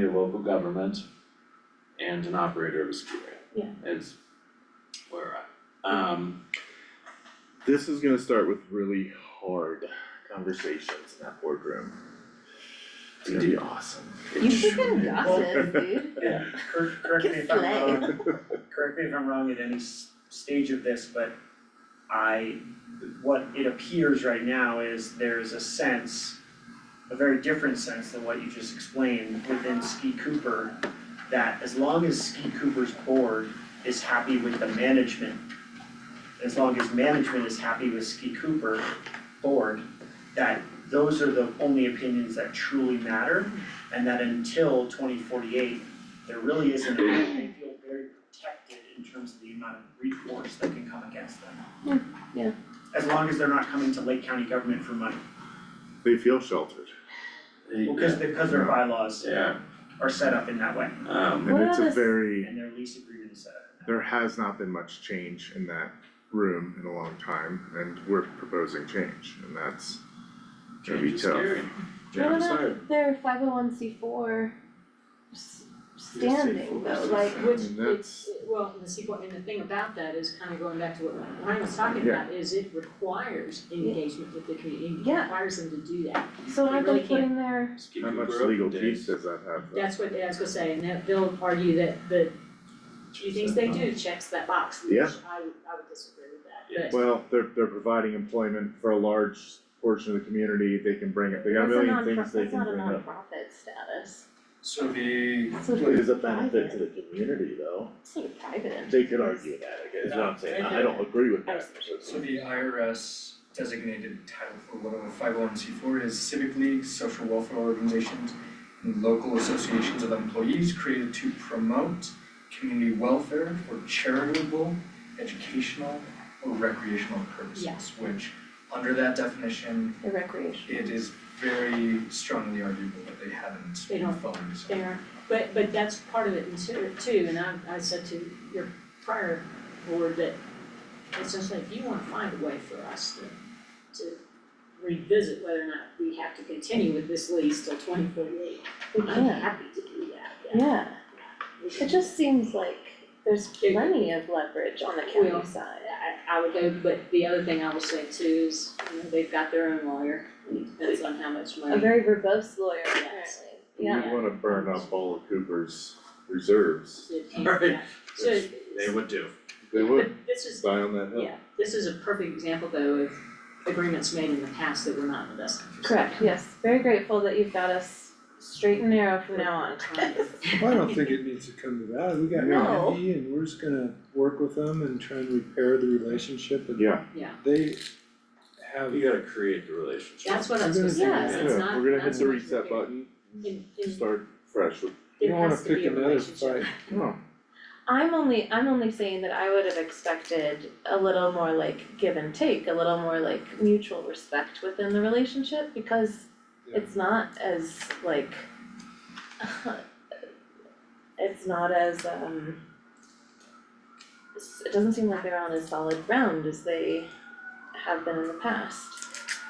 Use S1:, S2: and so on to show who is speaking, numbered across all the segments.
S1: your local government and an operator of a skiway.
S2: Yeah.
S1: Is where we're at. Um,
S3: This is gonna start with really hard conversations in that boardroom. It's gonna be awesome.
S2: You freaking gossip, dude.
S1: yeah,
S4: Cor- Correct me if I'm
S2: Good
S4: wrong, correct me if I'm wrong at any s- stage of this, but I, what it appears right now is there's a sense, a very different sense than what you just explained within Ski Cooper, that as long as Ski Cooper's board is happy with the management, as long as management is happy with Ski Cooper board, that those are the only opinions that truly matter, and that until twenty forty-eight, there really isn't, they feel very protected in terms of the amount of recourse that can come against them.
S2: Yeah, yeah.
S4: As long as they're not coming to Lake County government for money,
S3: They feel sheltered
S4: because, because their bylaws
S1: yeah,
S4: are set up in that way,
S1: um,
S3: and
S2: What
S3: it's
S2: are
S3: a
S2: the-
S3: very,
S4: and their lease agreement is set up in that way.
S3: there has not been much change in that room in a long time and we're proposing change and that's gonna be
S1: change is
S3: tough.
S1: scary.
S3: Yeah,
S2: What
S3: I'm sorry.
S2: about their five oh one C four standing though, like
S3: I
S5: Which
S3: mean,
S5: it's,
S3: that's,
S5: well, the sequel, and the thing about that is kind of going back to what Ryan was talking
S3: Yeah.
S5: about, is it requires engagement with the community, it
S2: Yeah.
S5: requires them to do that.
S2: so aren't they
S5: really can't.
S2: putting their,
S1: Ski
S3: how much
S1: Cooper
S3: legal
S1: open
S3: teeth
S1: days.
S3: does that have though?
S5: That's what, I was gonna say, and that they'll argue that the few things they do checks that box, which I
S3: Yeah.
S5: would, I would disagree with
S1: Yeah.
S5: that, but
S3: Well, they're, they're providing employment for a large portion of the community, they can bring it, they got a
S2: that's a
S3: million
S2: non,
S3: things
S2: that's
S3: they can
S2: not a
S3: bring up.
S2: nonprofit status,
S6: So the,
S2: so
S3: Well, It is a
S2: private.
S3: benefit to the community though,
S2: it's sort of private entity.
S3: they could argue that, I guess, is what I'm saying, I don't agree with that.
S6: so the IRS designated title for whatever five oh one C four is civic leagues, social welfare organizations, and local associations of employees created to promote community welfare for charitable, educational, or recreational purposes.
S5: Yeah.
S6: Which, under that definition,
S2: The recreation.
S6: it is very strongly arguable that they haven't
S5: They
S6: followed.
S5: don't. they are, but, but that's part of it too, too, and I, I said to your prior board that essentially, if you wanna find a way for us to, to revisit whether or not we have to continue with this lease till twenty forty-eight, I'm
S2: Yeah.
S5: happy to do that, yeah.
S2: Yeah,
S5: We
S2: it
S5: can-
S2: just seems like there's plenty of leverage on the
S5: Well,
S2: county side.
S5: I, I would go, but the other thing I will say too is, you know, they've got their own lawyer, and it depends on how much
S2: A
S5: money.
S2: very verbose lawyer
S5: Yes.
S2: apparently, yeah,
S3: We wanna burn up all of Cooper's reserves,
S5: it can-
S1: Right.
S5: yeah. So,
S1: They would do.
S3: they
S5: but
S3: would
S5: this is
S3: die on that hill.
S5: Yeah, this is a perfect example though of agreements made in the past that were not in the best interest.
S2: correct, yes, very grateful that you've got us straight and narrow from now on.
S7: Well, I don't think it needs to come to that, we got
S2: No.
S7: Andy and we're just gonna work with them and try and repair the relationship and
S3: Yeah,
S7: they have,
S1: You gotta create the relationship.
S5: That's what I was gonna say,
S2: Yeah.
S5: is it's
S3: yeah,
S5: not,
S3: we're gonna
S5: not
S3: hit
S5: so
S3: the
S5: much
S3: reset
S5: repair.
S3: button,
S5: In- in-
S3: start fresh with,
S7: you don't
S5: there
S7: wanna
S5: has to be
S7: pick
S5: a
S7: another fight.
S5: relationship.
S3: no,
S2: I'm only, I'm only saying that I would have expected a little more like give and take, a little more like mutual respect within the relationship because
S7: Yeah.
S2: it's not as like it's not as um s- it doesn't seem like they're on as solid ground as they have been in the past.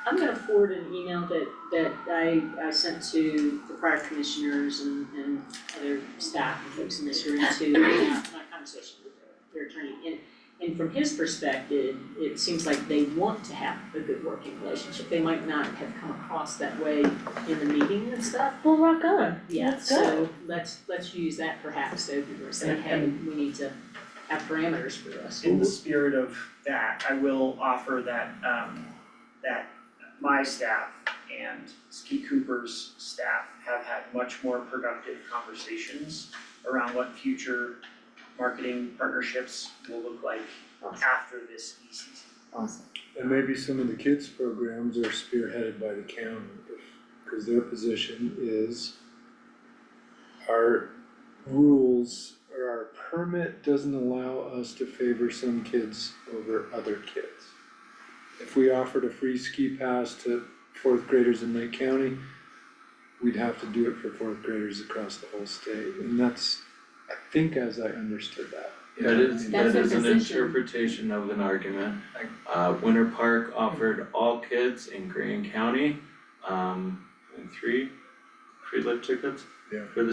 S5: I'm gonna forward an email that, that I, I sent to the prior commissioners and, and other staff and folks in this room to, my conversation with their, their attorney. And, and from his perspective, it seems like they want to have a good working relationship, they might not have come across that way in the meeting and stuff,
S2: Well, rock on,
S5: Yeah,
S2: That's good.
S5: so let's, let's use that perhaps, so people are saying, hey, we need to have parameters for us.
S4: In the spirit of that, I will offer that, um, that my staff and Ski Cooper's staff have had much more productive conversations around what future marketing partnerships will look like
S2: Awesome.
S4: after this E ski season.
S2: awesome.
S7: And maybe some of the kids' programs are spearheaded by the county, cause their position is our rules or our permit doesn't allow us to favor some kids over other kids. If we offered a free ski pass to fourth graders in Lake County, we'd have to do it for fourth graders across the whole state, and that's, I think as I understood that.
S6: Yeah,
S8: That is,
S5: That's
S8: that
S5: their
S8: is an
S5: position.
S8: interpretation of an argument. Uh, Winter Park offered all kids in Green County, um, and three, free lift tickets
S7: Yeah.
S8: for the